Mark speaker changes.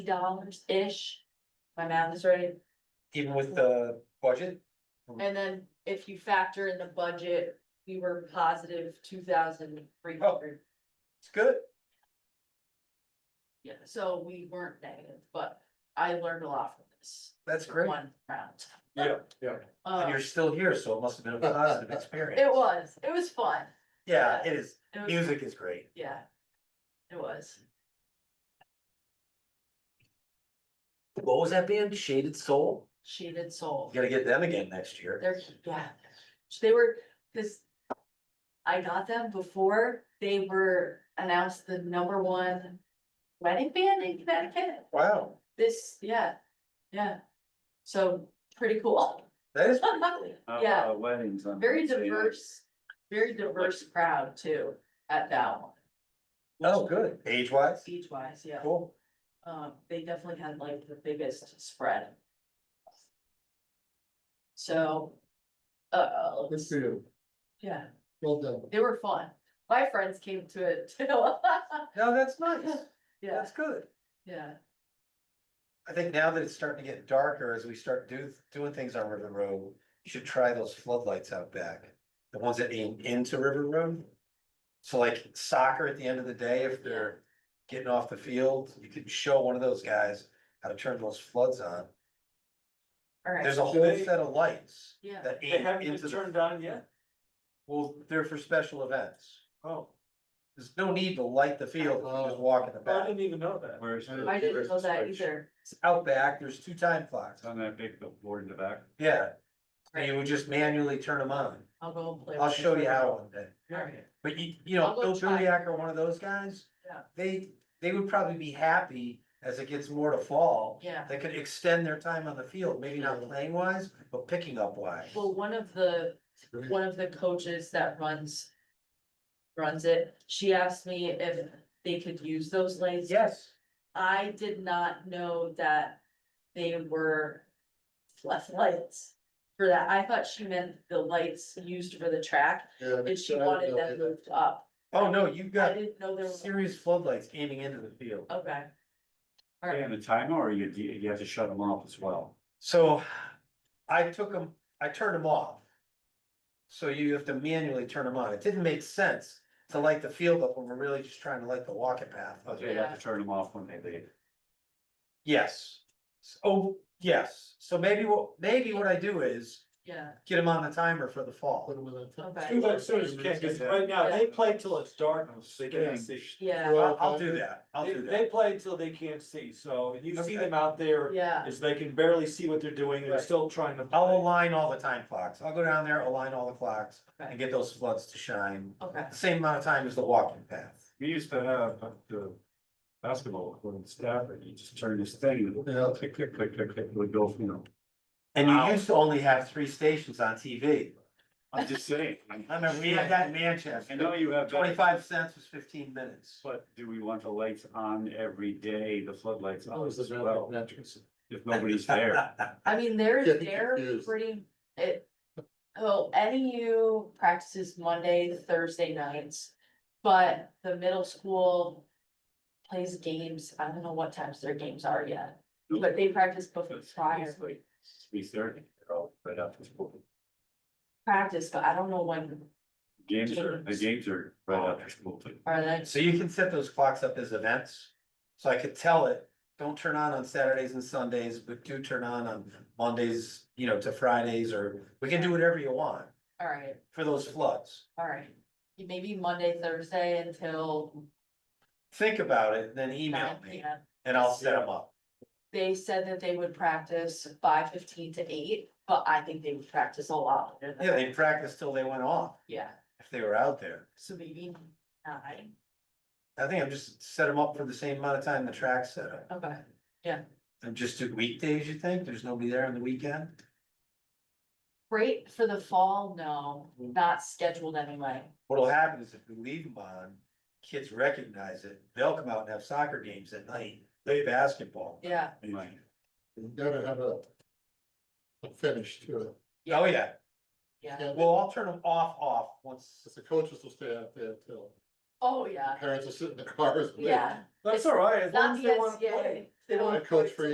Speaker 1: dollars-ish. My math is right.
Speaker 2: even with the budget,
Speaker 1: And then if you factor in the budget, we were positive two thousand three hundred.
Speaker 2: it's good.
Speaker 1: Yeah, so we weren't negative, but I learned a lot from this.
Speaker 2: That's great.
Speaker 1: One round.
Speaker 2: Yeah, yeah. And
Speaker 1: Um,
Speaker 2: you're still here, so it must have been a positive experience.
Speaker 1: it was, it was fun.
Speaker 2: Yeah, it is.
Speaker 1: It was,
Speaker 2: Music is great.
Speaker 1: yeah. It was.
Speaker 2: What was that band? Shaded Soul?
Speaker 1: Shaded Soul.
Speaker 2: You gotta get them again next year.
Speaker 1: They're, yeah, they were, cause. I got them before they were announced the number one wedding band in Connecticut.
Speaker 2: Wow,
Speaker 1: This, yeah, yeah. So pretty cool.
Speaker 2: that is,
Speaker 1: Yeah.
Speaker 3: Uh, Weddings. I'm
Speaker 1: Very
Speaker 3: gonna say.
Speaker 1: diverse, very diverse crowd too at that one,
Speaker 2: oh, good. Age wise,
Speaker 1: beach wise, yeah.
Speaker 2: cool.
Speaker 1: Um, they definitely had like the biggest spread. So, uh,
Speaker 4: Good for you.
Speaker 1: yeah.
Speaker 4: Well done.
Speaker 1: They were fun. My friends came to it too.
Speaker 2: No, that's nice.
Speaker 1: Yeah,
Speaker 2: That's good.
Speaker 1: yeah,
Speaker 2: I think now that it's starting to get darker, as we start do, doing things on River Road, you should try those floodlights out back. The ones that aim into River Road. So like soccer at the end of the day, if they're getting off the field, you could show one of those guys how to turn those floods on.
Speaker 1: all right,
Speaker 2: There's a whole set of lights
Speaker 1: yeah,
Speaker 2: that
Speaker 3: They
Speaker 2: aim
Speaker 3: haven't
Speaker 2: into
Speaker 3: been
Speaker 2: the,
Speaker 3: turned on yet?
Speaker 2: well, they're for special events.
Speaker 3: Oh,
Speaker 2: There's no need to light the field, you just walk in the
Speaker 3: I
Speaker 2: back.
Speaker 3: didn't even know that. Where's?
Speaker 1: I didn't know that either.
Speaker 2: It's out back, there's two time clocks,
Speaker 3: It's on that big board in the back.
Speaker 2: yeah. And you would just manually turn them on.
Speaker 1: I'll go and play.
Speaker 2: I'll
Speaker 1: with it
Speaker 2: show you
Speaker 1: for a
Speaker 2: how
Speaker 1: while.
Speaker 2: one day.
Speaker 1: All right.
Speaker 2: But you, you know,
Speaker 1: I'll go
Speaker 2: Bill
Speaker 1: try.
Speaker 2: Billyak or one of those guys.
Speaker 1: Yeah.
Speaker 2: They, they would probably be happy as it gets more to fall.
Speaker 1: Yeah.
Speaker 2: They could extend their time on the field, maybe not playing wise, but picking up wise.
Speaker 1: Well, one of the, one of the coaches that runs. Runs it, she asked me if they could use those lanes.
Speaker 2: Yes,
Speaker 1: I did not know that they were flashlights for that. I thought she meant the lights used for the track and she wanted them moved up.
Speaker 2: oh no, you've
Speaker 1: I
Speaker 2: got
Speaker 1: didn't know Oh. there was,
Speaker 2: serious floodlights aiming into the field.
Speaker 1: okay. All right.
Speaker 3: And the timer, or you, you you have to shut them off as well?
Speaker 2: So I took them, I turned them off. So you have to manually turn them on. It didn't make sense to light the field up when we're really just trying to light the walking path. up.
Speaker 3: Okay, you have to turn them off when they leave.
Speaker 2: Yes. S- Oh, yes. So maybe what, maybe what I do is
Speaker 1: Yeah,
Speaker 2: get them on the timer for the fall.
Speaker 1: Okay.
Speaker 5: Do that soon as you can, 'cause right now, they play till it's dark, so they can't see.
Speaker 1: yeah,
Speaker 2: I'll, I'll do that. I'll
Speaker 5: They,
Speaker 2: do
Speaker 5: they
Speaker 2: that.
Speaker 5: play till they can't see, so you
Speaker 2: Okay.
Speaker 5: see them out there,
Speaker 1: yeah,
Speaker 5: is they can barely see what they're doing, they're
Speaker 2: Right.
Speaker 5: still trying to.
Speaker 2: I'll
Speaker 5: play.
Speaker 2: align all the time clocks. I'll go down there, align all the clocks
Speaker 1: Okay.
Speaker 2: and get those floods to shine.
Speaker 1: okay,
Speaker 2: the Same amount of time as the walking path.
Speaker 3: We used to have uh, the basketball court in Stafford, you just turn this thing, and
Speaker 4: Yeah.
Speaker 3: it'll click, click, click, click, click, it would go, you know.
Speaker 2: And you
Speaker 3: Wow.
Speaker 2: used to only have three stations on TV.
Speaker 3: I'm just saying. I-
Speaker 2: I remember we had that in Manchester.
Speaker 3: I know you have. that,
Speaker 2: Twenty-five cents was fifteen minutes.
Speaker 3: But do we want the lights on every day, the floodlights on as well, if nobody's there?
Speaker 2: That's
Speaker 1: I mean, they're,
Speaker 4: Getting
Speaker 1: they're
Speaker 4: confused.
Speaker 1: pretty, it. Well, NEU practices Monday, Thursday nights, but the middle school. Plays games, I don't know what times their games are yet, but they practice before prior,
Speaker 3: Three thirty, they're all right after school.
Speaker 1: practice, but I don't know when
Speaker 3: Games are, the games are right after school. too.
Speaker 1: are they.
Speaker 2: So you can set those clocks up as events. So I could tell it, don't turn on on Saturdays and Sundays, but do turn on on Mondays, you know, to Fridays, or we can do whatever you want
Speaker 1: Alright,
Speaker 2: for those floods.
Speaker 1: alright, maybe Monday, Thursday until.
Speaker 2: Think about it, then
Speaker 1: 9
Speaker 2: email me
Speaker 1: p.m.
Speaker 2: and I'll set them up.
Speaker 1: They said that they would practice five fifteen to eight, but I think they would practice a lot. later than
Speaker 2: Yeah,
Speaker 1: that.
Speaker 2: they practiced till they went off,
Speaker 1: Yeah,
Speaker 2: if they were out there.
Speaker 1: so maybe nine,
Speaker 2: I think I'm just set them up for the same amount of time the track's set up.
Speaker 1: okay,
Speaker 2: And just do weekdays, you think? There's nobody there on the weekend?
Speaker 1: great for the fall, no, not scheduled anyway,
Speaker 2: What'll happen is if we leave them on, kids recognize it, they'll come out and have soccer games at night, play basketball.
Speaker 1: yeah,
Speaker 3: Right.
Speaker 4: You gotta have a. A finish to it.
Speaker 2: Oh, yeah,
Speaker 1: yeah,
Speaker 4: Yeah,
Speaker 2: well, I'll turn them off, off, once,
Speaker 4: The coaches will stay out there till
Speaker 1: oh,
Speaker 4: the
Speaker 1: yeah,
Speaker 4: parents are sitting in the cars. waiting.
Speaker 1: yeah.
Speaker 5: That's all right, as long
Speaker 1: Not
Speaker 5: as
Speaker 1: the
Speaker 5: they wanna
Speaker 1: SCA,
Speaker 5: play.
Speaker 1: They don't
Speaker 4: That codes for